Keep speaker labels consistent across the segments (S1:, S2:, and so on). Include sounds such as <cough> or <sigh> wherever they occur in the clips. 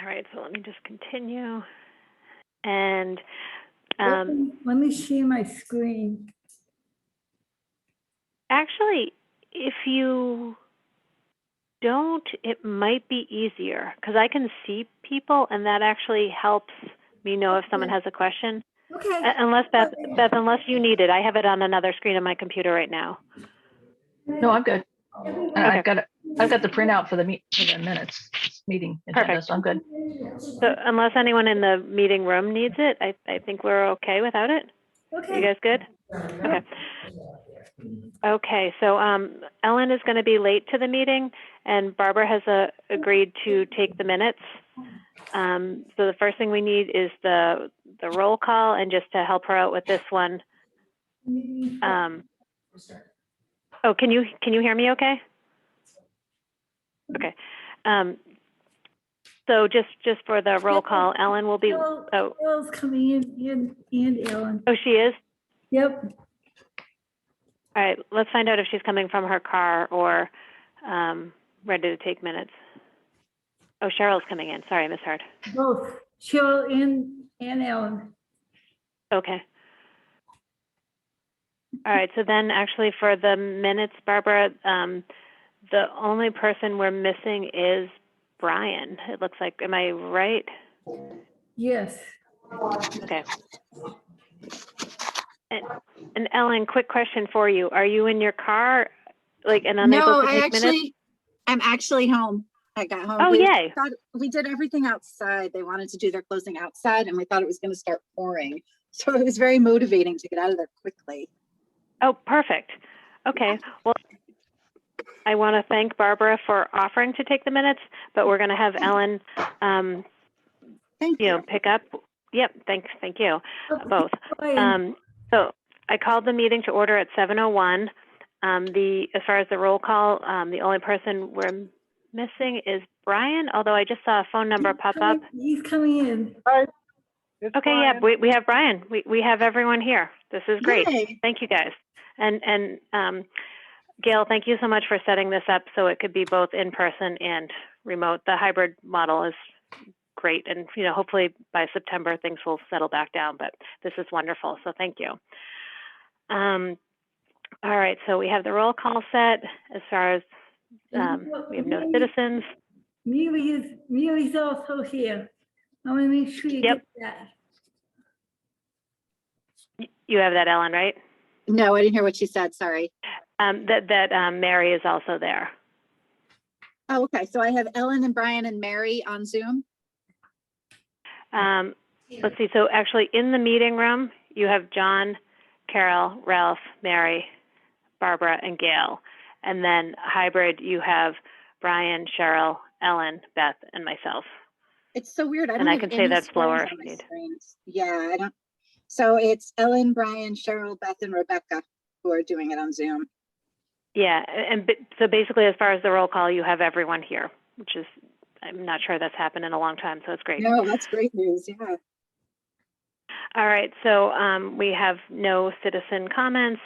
S1: All right, so let me just continue. And,
S2: Let
S1: um,
S2: me- let me share my screen.
S1: actually, if you don't, it might be easier because I can see people and that actually helps me know if someone
S2: Okay.
S1: has a question.
S2: Okay.
S1: Uh, Unless Beth,
S2: Okay.
S1: Beth, unless you need it, I have it on another screen on my computer right now.
S3: No, I'm good. I-
S1: Okay.
S3: I've got, a- I've got the printout for the meet, for the minutes, meeting agenda, so I'm good.
S1: So
S2: Mm-hmm.
S1: unless anyone in the meeting room needs it, I, I think we're okay without it. You
S2: Okay.
S1: guys good? Okay. Okay, so um, Ellen is going to be late to the meeting, and Barbara has uh, agreed to take the minutes. Um, So the first thing we need is the, the roll call, and just to help her out with this one. um, Oh, can you, can you hear me okay? Okay. Um, So just, just for the roll call, Ellen will be,
S2: Carol-
S1: oh,
S2: Carol's coming in, and, and Ellen.
S1: oh, she is?
S2: Yep.
S1: All right, let's find out if she's coming from her car or um, ready to take minutes. Oh, Cheryl's coming in. Sorry, I misheard.
S2: Both Cheryl and, and Ellen.
S1: Okay. All right, so then actually for the minutes, Barbara, um, the only person we're missing is Brian. It looks like, am I right?
S2: Yes.
S1: Okay. And and Ellen, quick question for you. Are you in your car, like, and unable
S4: No,
S1: to
S4: I
S1: take minutes?
S4: actually, I'm actually home. I got home.
S1: Oh,
S4: We
S1: yay.
S4: thought- We did everything outside. They wanted to do their closing outside and we thought it was gonna start pouring. <laughs> So it was very motivating to get out of there quickly.
S1: Oh, perfect. Okay, well, I want to thank Barbara for offering to take the minutes, but we're going to have Ellen, um,
S4: Thank
S1: you know,
S4: you.
S1: pick up. Yep, thanks, thank you,
S2: Okay,
S1: both.
S2: Brian,
S1: Um, so I called the meeting to order at 7:01. Um, the, as far as the roll call, um, the only person we're missing is Brian, although I just saw a phone number
S2: he's
S1: pop up.
S2: coming- He's coming in.
S1: Okay, yeah, we, we have Brian. We, we have everyone here. This is great.
S4: Yay.
S1: Thank you, guys. And, and um, Gail, thank you so much for setting this up so it could be both in person and remote. The hybrid model is great, and you know, hopefully by September things will settle back down. But this is wonderful, so thank you. Um, all right, so we have the roll call set as far as um, we have no citizens.
S2: Mary is, Mary's also here. I want to make sure you
S1: Yep.
S2: get that.
S1: You have that, Ellen, right?
S4: No, I didn't hear what she said. Sorry.
S1: Um, that that um, Mary is also there.
S4: Oh, okay. So I have Ellen and Brian and Mary on Zoom.
S1: Um, let's see, so actually in the meeting room, you have John, Carol, Ralph, Mary, Barbara, and Gail. And then hybrid, you have Brian, Cheryl, Ellen, Beth, and myself.
S4: It's so weird. I
S1: And
S4: don't
S1: I
S4: have
S1: can say
S4: any
S1: that
S4: screens
S1: slower
S4: on
S1: if
S4: my
S1: you need.
S4: screens. Yeah, I don't. So it's Ellen, Brian, Cheryl, Beth and Rebecca who are doing it on Zoom.
S1: Yeah, a- and b- so basically as far as the roll call, you have everyone here, which is, I'm not sure that's happened in a long time, so it's great.
S4: No, that's great news. Yeah.
S1: All right, so um, we have no citizen comments.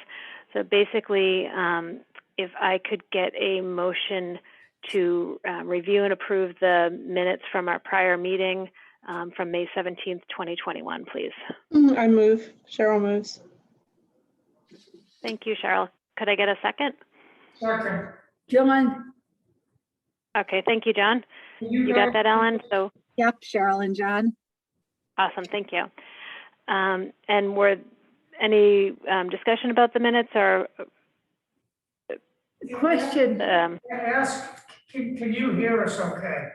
S1: So basically, um, if I could get a motion to uh, review and approve the minutes from our prior meeting um, from May 17th, 2021, please.
S5: Mm, I move. Cheryl moves.
S1: Thank you, Cheryl. Could I get a second?
S2: John,
S1: Okay, thank you, John. You got that, Ellen? So
S4: Yep, Cheryl and John.
S1: awesome, thank you. Um, And were any um, discussion about the minutes or?
S2: question.
S1: um,
S6: Ask, can, can you hear us okay?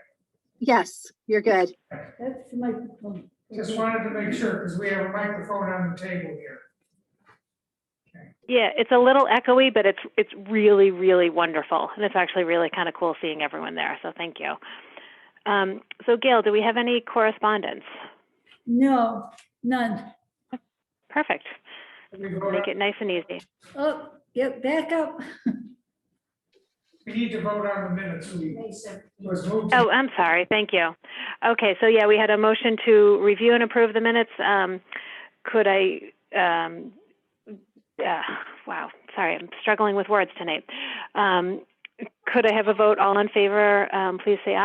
S4: Yes, you're good.
S2: That's the microphone.
S6: Just
S1: Mm-hmm.
S6: wanted to make sure, because we have a microphone on the table here.
S1: Yeah, it's a little echoey, but it's it's really really wonderful, and it's actually really kind of cool seeing everyone there. So thank you. Um, so Gail, do we have any correspondence?
S2: No, none.
S1: Perfect.
S6: Can we vote
S1: Make
S6: on-
S1: it nice and easy.
S2: Oh, get back up.
S6: We need to vote on the minutes. We was moved.
S1: Oh, I'm sorry. Thank you. Okay, so yeah, we had a motion to review and approve the minutes. Um, could I? Um, uh, wow, sorry, I'm struggling with words tonight. Um, could I have a vote? All in favor? Um, please say